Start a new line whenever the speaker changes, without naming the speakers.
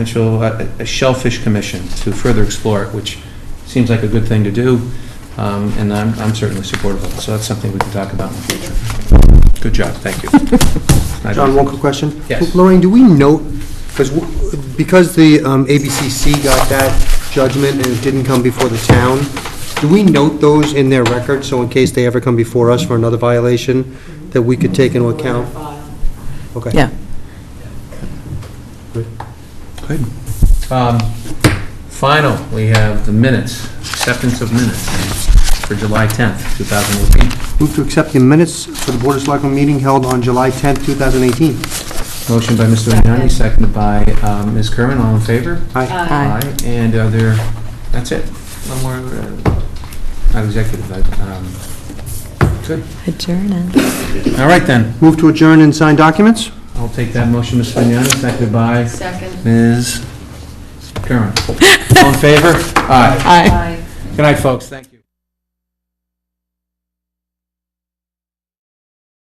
potential, uh, a shellfish commission to further explore it, which seems like a good thing to do, um, and I'm I'm certainly supportive of it, so that's something we can talk about in the future. Good job, thank you.
John, one quick question?
Yes.
Lorraine, do we note, because, because the um, ABCC got that judgment and it didn't come before the town, do we note those in their record, so in case they ever come before us for another violation, that we could take into account? Okay.
Yeah.
Good. Um, Final, we have the minutes, acceptance of minutes for July 10th, 2018.
Move to accept the minutes for the Board of Selectmen meeting held on July 10th, 2018.
Motion by Mr. Vignani, seconded by um, Ms. Kerman, all in favor?
Aye.
Aye.
And are there, that's it. One more, uh, not executive, but, um, good.
Adjourn it.
All right then,
Move to adjourn and sign documents?
I'll take that motion, Ms. Vignani, seconded by
Second.
Ms. Curran. All in favor? Aye.
Aye.
Aye.
Good night, folks, thank you.